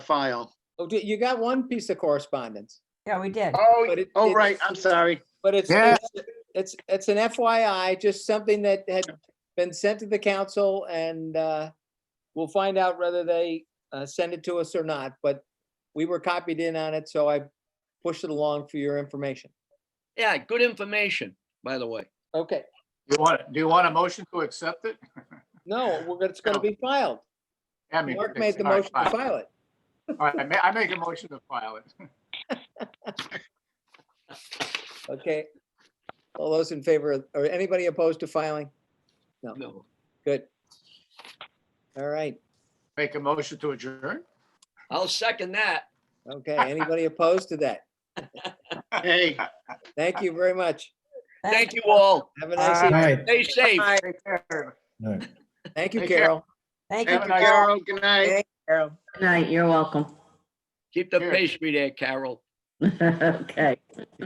file. Oh, do- you got one piece of correspondence, Yeah, we did. Oh, But it- oh, it- right, I'm sorry. but it's, Yeah. it's- it's, it's an FYI, just something that had been sent to the council and uh, we'll find out whether they uh, send it to us or not, but we were copied in on it, so I pushed it along for your information. Yeah, good information, by the way. Okay, You want, do you want a motion to accept it? no, we're, it's gonna No. be filed. I mean, Mark made the all right, motion to fine. file it. All right, I ma- I make a motion to file it. Okay. All those in favor, of- or anybody opposed to filing? No. Good. All right, Make a motion to adjourn? I'll second that. okay. Anybody opposed to that? Hey, Thank you very much. Thank you all. Have a nice evening. right. Stay safe. Take care. All right. Thank you, Take care. Carol. Thank you. Have a nice- Carol, good night. Carol. Good night, you're welcome. Keep the Here. pastry there, Carol. Okay.